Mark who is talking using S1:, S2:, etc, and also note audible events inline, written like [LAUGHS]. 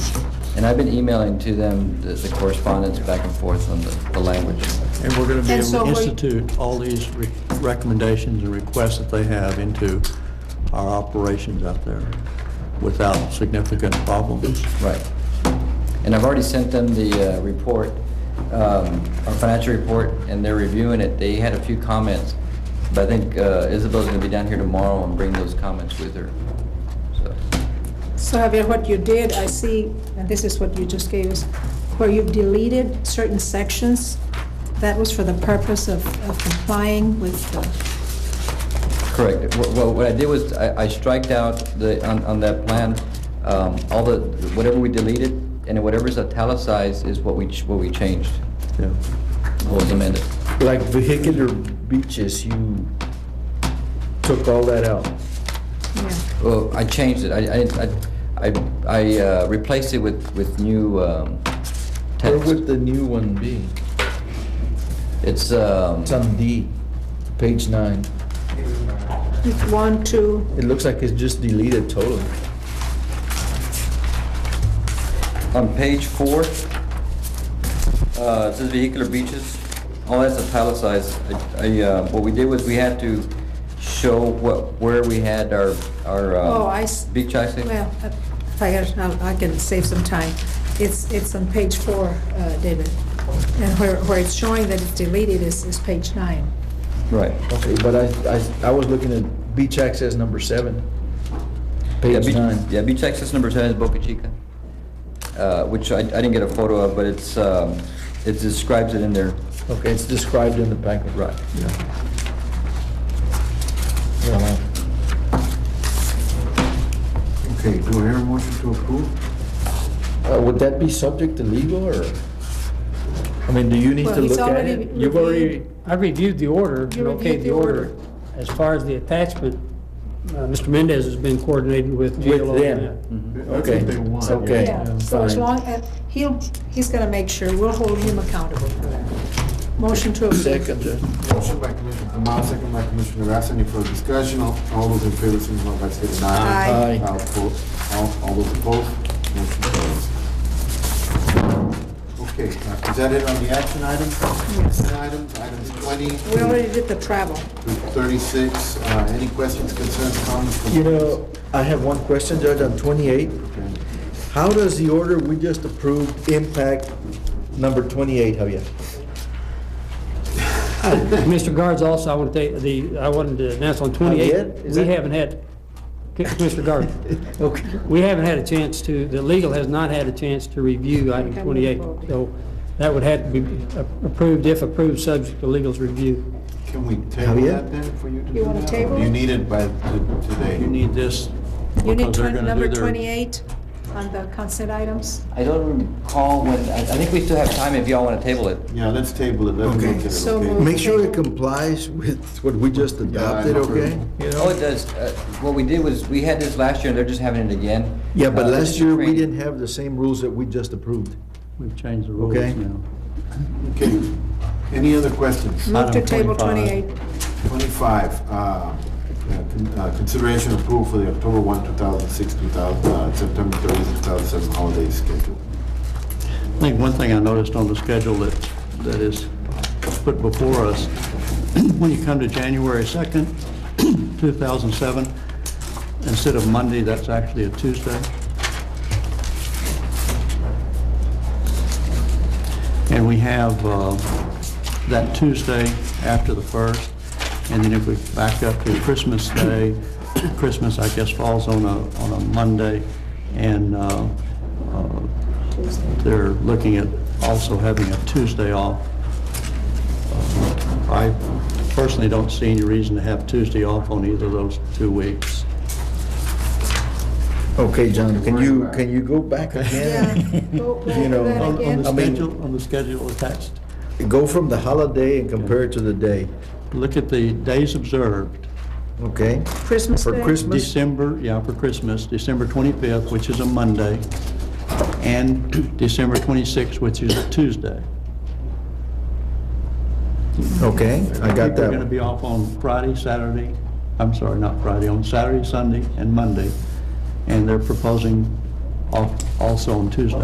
S1: And I've been emailing to them the- the correspondence back and forth on the the language.
S2: And we're going to be
S3: And
S2: able
S3: so
S2: to
S3: we-
S2: institute all these re- recommendations and requests that they have into our operations out there without significant problems.
S1: Right. And I've already sent them the uh, report, um, our financial report, and they're reviewing it. They had a few comments, but I think uh, Isabel's going to be down here tomorrow and bring those comments with her. So,
S3: So Javier, what you did, I see, and this is what you just gave us, where you've deleted certain sections, that was for the purpose of of complying with the,
S1: Correct. Wha- wha- What I did was, I I striked out the, on on that plan, um, all the, whatever we deleted, and whatever's italicized is what we, ch- what we changed,
S2: Yeah.
S1: what was amended.
S4: Like vehicular beaches, you took all that out.
S3: yeah.
S1: Well, I changed it. I, I- I, I, I uh, replaced it with, with new um,
S4: Where
S1: text.
S4: would the new one be?
S1: It's, um,
S4: It's on D, page nine.
S3: With one, two,
S4: It looks like it's just deleted totally.
S1: on page four, uh, it says vehicular beaches. All that's italicized. I, I, uh, what we did was we had to show what, where we had our, our um,
S3: oh, I. s-
S1: beach access.
S3: Well, uh, Javier, I'll- I can save some time. It's, it's on page four, uh, David, and where, where it's showing that it's deleted is, is page nine.
S1: Right.
S4: Okay, but I, I, I was looking at beach access number seven.
S1: Yeah,
S4: Page
S1: beach-
S4: nine.
S1: Yeah, beach access number seven is Boca Chica, uh, which I, I didn't get a photo of, but it's, um, it describes it in there.
S4: Okay, it's described in the packet.
S1: Right.
S4: Yeah, wow.
S5: Okay, do I hear a motion to approve?
S4: Uh, Would that be subject to legal or? I mean, do you need
S3: Well,
S4: to
S3: he's
S4: look at
S3: already
S4: it? You've already,
S6: I reviewed the order,
S3: You
S6: and okayed
S3: reviewed
S6: the
S3: the order.
S6: order. As far as the attachment, uh, Mr. Mendez has been coordinating with
S4: With
S6: GLO.
S4: them.
S6: and
S4: Okay,
S5: That's what they want.
S4: okay.
S5: yeah.
S3: Yeah, so as
S4: fine.
S3: long, as he'll, he's gonna make sure, we'll hold him accountable for that. Motion to approve.
S4: second, uh,
S5: Motion by Commissioner Tamara, second by Commissioner Garcia, any further discussion? All all those in favor, signify by saying aye.
S4: Aye. Aye.
S5: All opposed, all, all those opposed, motion carries. Okay, uh, is that it on the action items? Action items, items twenty
S3: We
S5: through
S3: already did the travel.
S5: thirty-six, uh, any questions, concerns, comments? from-
S4: You know, I have one question, Judge, on 28.
S5: Okay.
S4: How does the order we just approved impact number 28, Javier?
S6: Mr. Guards also, I want to take, the, I wanted to announce on
S4: yet?
S6: 28,
S4: Oh, Is
S6: we
S4: that-
S6: haven't had, Mr. Guard,
S4: [LAUGHS] Okay.
S6: we haven't had a chance to, the legal has not had a chance to review item
S3: Okay,
S6: 28.
S3: wonderful.
S6: So that would have to be approved, if approved, subject to legal's review.
S5: Can we table
S4: Javier?
S5: that then for you to do that?
S3: You wanna table
S5: Or do You
S3: it?
S5: need it by t- today.
S2: You need this
S3: You need
S2: because they're going
S3: twen-
S2: to
S3: number
S2: do their...
S3: 28 on the consent items.
S1: I don't recall when, I, I think we still have time if y'all want to table it.
S5: Yeah, let's table it, let me
S4: Okay.
S5: look at it,
S3: So
S5: okay?
S3: moved.
S4: Make sure it complies with what we just adopted,
S5: know.
S4: okay? You
S1: Oh,
S4: know?
S1: it does. Uh, What we did was, we had this last year, and they're just having it again.
S4: Yeah, but
S1: Uh, this
S4: last
S1: is
S4: year, we
S1: training.
S4: didn't have the same rules that we just approved.
S2: We've changed the rules
S4: Okay.
S2: now.
S5: Okay, any other questions?
S3: Move to
S2: Item
S3: table
S2: 25.
S3: 28.
S4: [LAUGHS]
S5: 25, uh, uh, con- uh, consideration approval for the October 1, 2006, 2000, uh, September 30, 2007 holiday schedule.
S2: I think one thing I noticed on the schedule that, that is put before us, [CLEARS THROAT] when you come to January [CLEARS THROAT] 2nd, 2007, instead of Monday, that's actually a Tuesday. And we have uh, that Tuesday after the first, and then if we back up to Christmas Day, [CLEARS THROAT] Christmas, I guess, falls on a, on a Monday, and uh, uh, they're looking at also having a Tuesday off. Uh, I personally don't see any reason to have Tuesday off on either of those two weeks.
S4: Okay, John, can you, can you go back again?
S3: Yeah. Go- go
S4: You know,
S3: over that
S4: on-
S2: On on
S3: again.
S2: the
S4: I mean-
S2: schedule, on the schedule attached,
S4: Go from the holiday and compare it to the day,
S2: look at the days observed.
S4: okay?
S3: Christmas
S4: For
S3: Day.
S4: Christmas?
S2: December, yeah, for Christmas, December 25th, which is a Monday, and December 26th, which is a Tuesday.
S4: Okay, I got
S2: People are
S4: that
S2: going to
S4: one.
S2: be off on Friday, Saturday, I'm sorry, not Friday, on Saturday, Sunday, and Monday, and they're proposing off also on Tuesday.